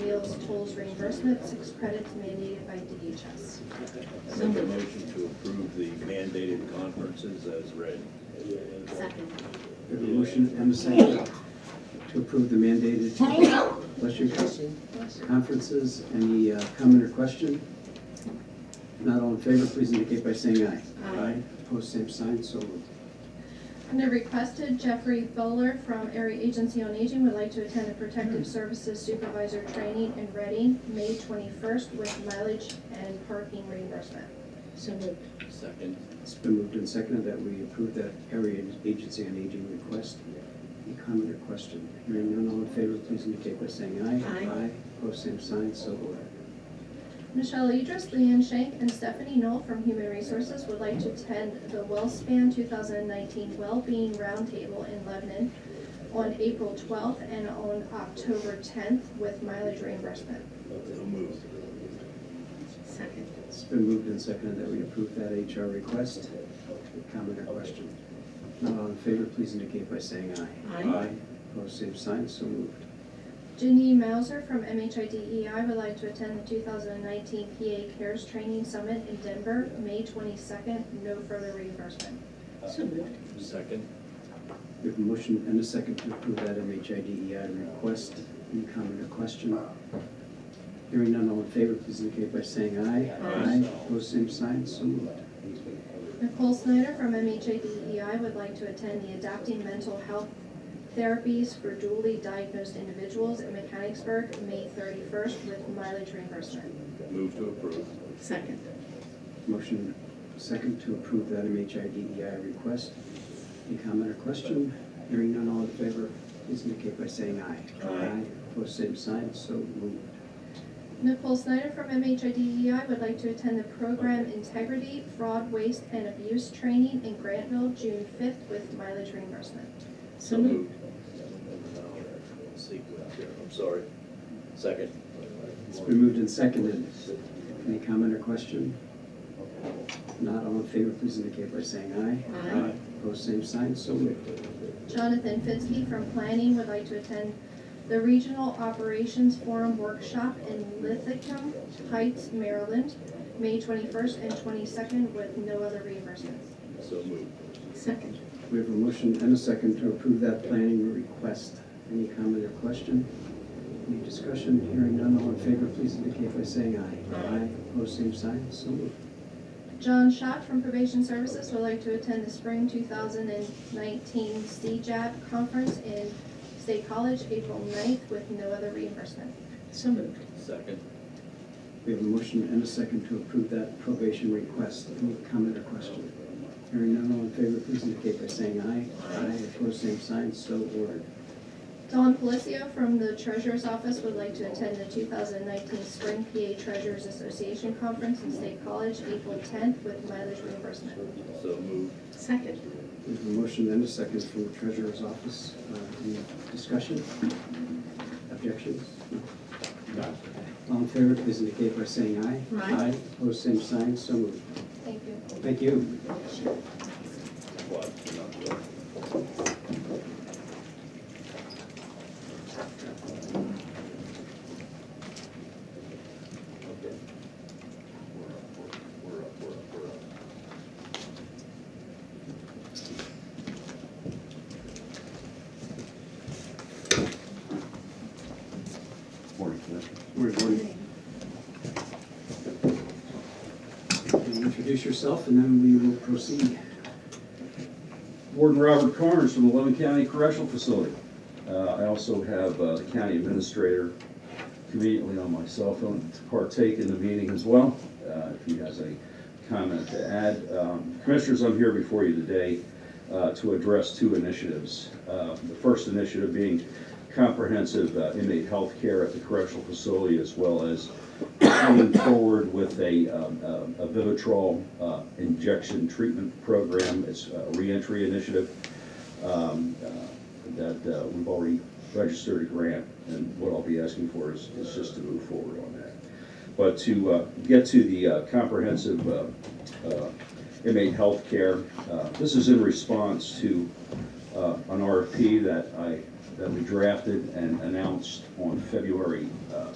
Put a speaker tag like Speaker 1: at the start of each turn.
Speaker 1: Sales tolls reimbursement, six credits mandated by DHS.
Speaker 2: Make a motion to approve the mandated conferences as read.
Speaker 1: Second.
Speaker 3: We have a motion and a second to approve the mandated, bless you, conferences. Any uh, comment or question? If Not all in favor, please indicate by saying aye.
Speaker 1: Aye.
Speaker 3: Opposed, same sign, so moved.
Speaker 1: Under requested, Jeffrey Bowler from Area Agency on Aging would like to attend the Protective Services Supervisor Training in Reading, May 21st, with mileage and parking reimbursement.
Speaker 4: So moved.
Speaker 2: Second.
Speaker 3: It's been moved and seconded that we approve that area agency on aging request. Any comment or question? Hearing none, all in favor, please indicate by saying aye.
Speaker 4: Aye.
Speaker 3: Opposed, same sign, so ordered.
Speaker 1: Michelle Idris, Leanne Shank, and Stephanie Knoll from Human Resources would like to attend the WellSpan 2019 Wellbeing Roundtable in Lebanon on April 12th and on October 10th with mileage reimbursement.
Speaker 2: So moved.
Speaker 4: Second.
Speaker 3: It's been moved and seconded that we approve that HR request. Comment or question? Not all in favor, please indicate by saying aye.
Speaker 4: Aye.
Speaker 3: Opposed, same sign, so moved.
Speaker 1: Janine Mauser from MHIDEI E would like to attend the 2019 PA Cares Training Summit in Denver, May 22nd, no further reimbursement.
Speaker 4: So moved.
Speaker 2: Second.
Speaker 3: We have a motion and a second to approve that MHIDEI E request. Any comment or question? Hearing none, all in favor, please indicate by saying aye.
Speaker 2: Aye.
Speaker 3: Opposed, same sign, so moved.
Speaker 1: Nicole Snyder from MHADEI E would like to attend the Adapting Mental Health Therapies for Dually Diagnosed Individuals in Mechanicsburg, May 31st, with mileage reimbursement.
Speaker 2: Move to approve.
Speaker 4: Second.
Speaker 3: Motion second to approve that MHIDEI E request. Any comment or question? Hearing none, all in favor, please indicate by saying aye.
Speaker 2: Aye.
Speaker 3: Opposed, same sign, so moved.
Speaker 1: Nicole Snyder from MHIDEI E would like to attend the Program Integrity, Fraud, Waste, and Abuse Training in Grantville, June 5th, with mileage reimbursement.
Speaker 4: So moved.
Speaker 2: Sequence here, I'm sorry. Second.
Speaker 3: It's been moved and seconded. Any comment or question? If Not all in favor, please indicate by saying aye.
Speaker 4: Aye.
Speaker 3: Opposed, same sign, so moved.
Speaker 1: Jonathan Fitzke from Planning would like to attend the Regional Operations Forum Workshop in Lithicum Heights, Maryland, May 21st and 22nd with no other reimbursements.
Speaker 2: So moved.
Speaker 4: Second.
Speaker 3: We have a motion and a second to approve that planning request. Any comment or question? Any discussion? Hearing none, all in favor, please indicate by saying aye.
Speaker 4: Aye.
Speaker 3: Opposed, same sign, so moved.
Speaker 1: John Schott from Probation Services would like to attend the Spring 2019 CJAB Conference in State College, April 9th with no other reimbursement.
Speaker 4: So moved.
Speaker 2: Second.
Speaker 3: We have a motion and a second to approve that probation request. Any comment or question? Hearing none, all in favor, please indicate by saying aye. Aye. Opposed, same sign, so ordered.
Speaker 1: Don Policio from the Treasurer's Office would like to attend the 2019 Spring PA Treasurers Association Conference in State College, April 10th, with mileage reimbursement.
Speaker 2: So moved.
Speaker 4: Second.
Speaker 3: We have a motion and a second from the treasurer's office. Uh, Any discussion? Objections? No. All in favor, please indicate by saying aye.
Speaker 4: Aye.
Speaker 3: Opposed, same sign, so moved.
Speaker 1: Thank you.
Speaker 3: Thank you.
Speaker 2: What? Not good. Okay. We're up, we're up, we're up, we're up, we're up.
Speaker 5: Morning, Commissioner.
Speaker 3: We're going to introduce yourself and then we will proceed.
Speaker 5: Warden Robert Carnes from the Lebanon County Correctional Facility. Uh, I also have uh, the county administrator conveniently on my cell phone to partake in the meeting as well, uh, if he has a comment to add. Um, Commissioners, I'm here before you today uh, to address two initiatives. Uh, The first initiative being comprehensive uh, inmate health care at the correctional facility, as well as coming forward with a um, um, a Vivitrol uh, injection treatment program. It's a reentry initiative um, uh, that uh, we've already registered a grant, and what I'll be asking for is, is just to move forward on that. But to uh, get to the uh, comprehensive uh, uh, inmate health care, uh, this is in response to uh, an RFP that I, that we drafted and announced on February uh,